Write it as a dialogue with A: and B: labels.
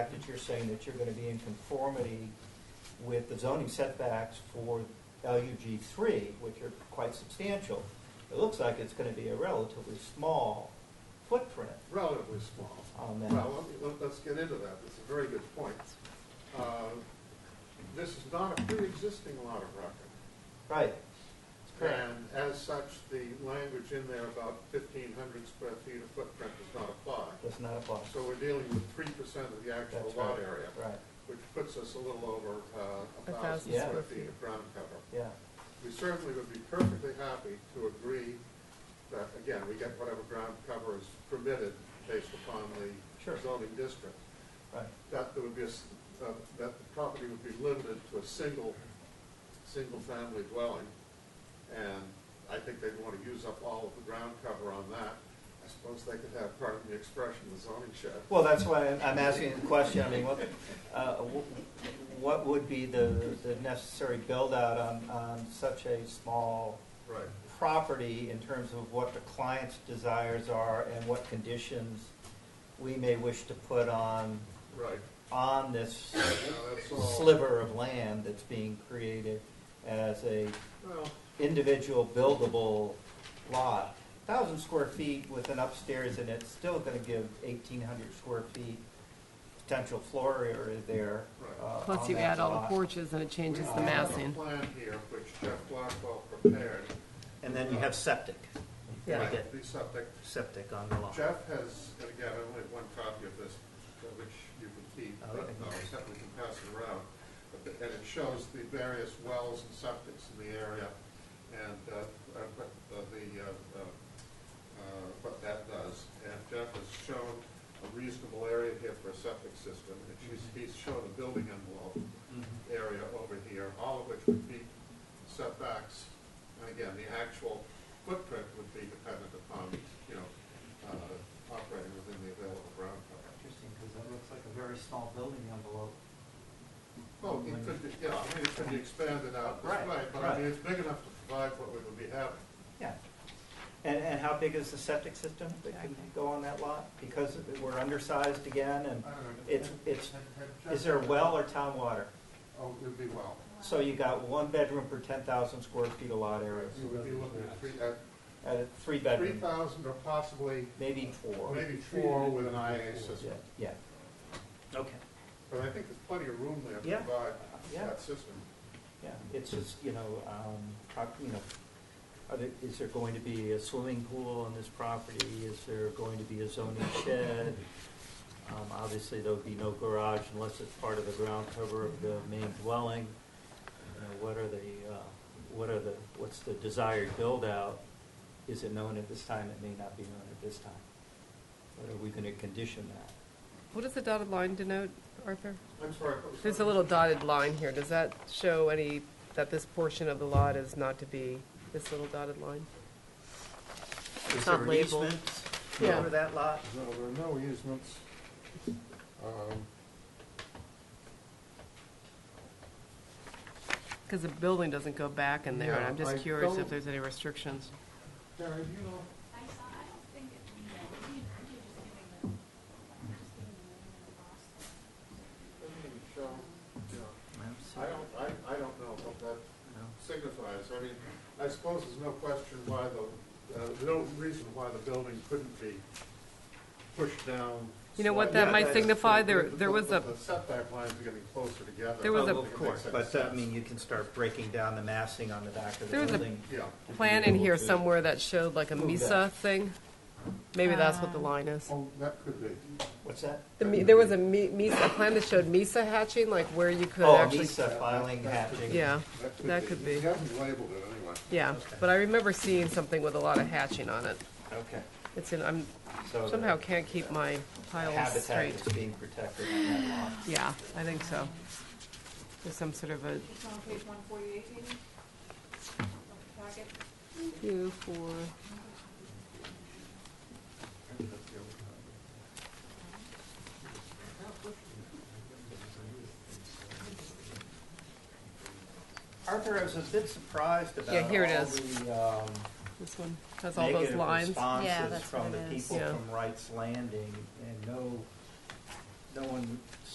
A: fact that you're saying that you're going to be in conformity with the zoning setbacks for LUG three, which are quite substantial, it looks like it's going to be a relatively small footprint
B: relatively small.
A: on that.
B: Well, let me- let- let's get into that, it's a very good point. Uh, This is not a pre-existing lot of record.
A: Right, correct.
B: And as such, the language in there about fifteen hundred square feet of footprint does not apply.
A: does not apply.
B: So we're dealing with three percent of the actual
A: That's
B: lot
A: right.
B: area,
A: Right,
B: which puts us a little over uh, a
C: A
B: thousand
C: thousand
A: Yeah.
B: square
C: square
B: feet of ground cover.
A: yeah,
B: We certainly would be perfectly happy to agree that, again, we get whatever ground cover is permitted based upon
A: Sure.
B: the zoning district.
A: right,
B: That there would be, a s- uh, that the property would be limited to a single, single-family dwelling. And I think they'd want to use up all of the ground cover on that. I suppose they could have, pardon the expression, the zoning shed.
A: Well, that's why I'm I'm asking the question, I mean, what, uh, wh- what would be the, the necessary build-out on, on such a small
B: Right.
A: property in terms of what the client's desires are and what conditions we may wish to put on,
B: Right.
A: on this
B: Now, that's all-
A: sliver of land that's being created as a
B: Well,
A: individual buildable lot. Thousand square feet with an upstairs in it's still gonna give eighteen hundred square feet potential floor area there.
B: Right.
A: uh,
C: Plus
A: on
C: you
A: that
C: add all the
A: lot.
C: porches and it changes the
B: We have a
C: massing.
B: plan here, which Jeff Blackwell prepared.
A: And then you have septic, You gotta
B: Right,
A: get
B: The subject,
A: septic on the lot.
B: Jeff has, and again, I only have one copy of this, uh, which you can keep,
A: Oh,
B: but
A: okay.
B: no, except we can pass it around. But the- And it shows the various wells and septics in the area, and uh, uh, what uh, the, uh, uh, uh, what that does. And Jeff has shown a reasonable area here for a septic system, and she's, he's shown a building envelope
A: Mm-hmm.
B: area over here, all of which would be setbacks. And again, the actual footprint would be dependent upon, you know, uh, operating within the available ground cover.
A: Interesting, because that looks like a very small building envelope.
B: Well, it could be, yeah, I mean, it could be expanded out this
A: Right,
B: way, but I mean,
A: right.
B: it's big enough to provide what we would be having.
A: Yeah. And, and how big is the septic system that can go on that lot? Because we're undersized again, and it's, it's, is there well or town water?
B: Oh, it'd be well.
A: So you got one bedroom per ten thousand square feet of lot area,
B: You would be looking at three, at
A: at a three
B: three
A: bedroom,
B: thousand or possibly,
A: maybe four.
B: maybe four with an IA
A: Yeah,
B: system.
A: yeah. Okay.
B: But I think there's plenty of room there
A: Yeah.
B: to provide
A: Yeah.
B: that system.
A: Yeah, it's just, you know, um, how, you know, are there, is there going to be a swimming pool on this property? Is there going to be a zoning shed? Um, obviously, there would be no garage unless it's part of the ground cover of the main dwelling. You know, what are the, uh, what are the, what's the desired build-out? Is it known at this time? It may not be known at this time. But are we gonna condition that?
C: What does the dotted line denote, Arthur?
B: I'm sorry. what was
C: There's
B: that?
C: a little dotted line here. Does that show any, that this portion of the lot is not to be, this little dotted line?
A: Is
C: not
A: there an
C: labeled.
A: easement
C: Yeah.
A: over that lot?
B: No, there are no easements. Um,
C: Because the building doesn't go back in there, and I'm
B: Yeah, I
C: just curious
B: don't-
C: if there's any restrictions.
B: Terry, do you know,
D: I saw, I don't think it, you know, you- you're just giving the, just giving the name of the boss.
B: doesn't it show,
A: No,
B: yeah. I
A: sorry,
B: don't, I, I don't know what that
A: no.
B: signifies. I mean, I suppose there's no question why the, uh, there's no reason why the building couldn't be pushed down.
C: You know what that
B: slightly.
A: might
B: Yeah,
C: signify?
B: but
C: There-
B: the-
C: there
B: but
C: was
B: the-
C: a-
B: The setback lines are getting closer together.
C: There was
B: I
C: a-
B: don't think it
A: Oh, Of course,
B: makes
A: but, uh,
B: sense.
A: I mean, you can start breaking down the massing on the back of the
C: There was a-
A: building.
B: Yeah.
C: Plan in here somewhere that showed like a
A: Move
C: mesa
A: that.
C: thing? Maybe that's what the line is.
B: Oh, that could be.
A: What's that?
C: The me- There was a me- mesa, a plan that showed mesa hatching, like where you could
A: Oh,
C: actually,
A: Mesa filing, hatching.
C: yeah. That could be.
B: He hasn't labeled it anyway.
C: Yeah, but I remember seeing something with a lot of hatching on it.
A: Okay.
C: It's in, I'm
A: So the
C: somehow can't keep my piles
A: Habitat
C: straight.
A: is being protected on that lot.
C: Yeah, I think so. There's some sort of a
D: It's on page one forty-eight, maybe? Of the packet.
C: two, four,
A: Arthur, I was a bit surprised about
C: Yeah, here it
A: all
C: is.
A: the, um,
C: this one has all those
A: negative
C: lines.
E: Yeah,
A: responses
E: that's
A: from
E: what
A: the
E: it is.
A: people
C: Yeah.
A: from Wright's Landing, and no, no one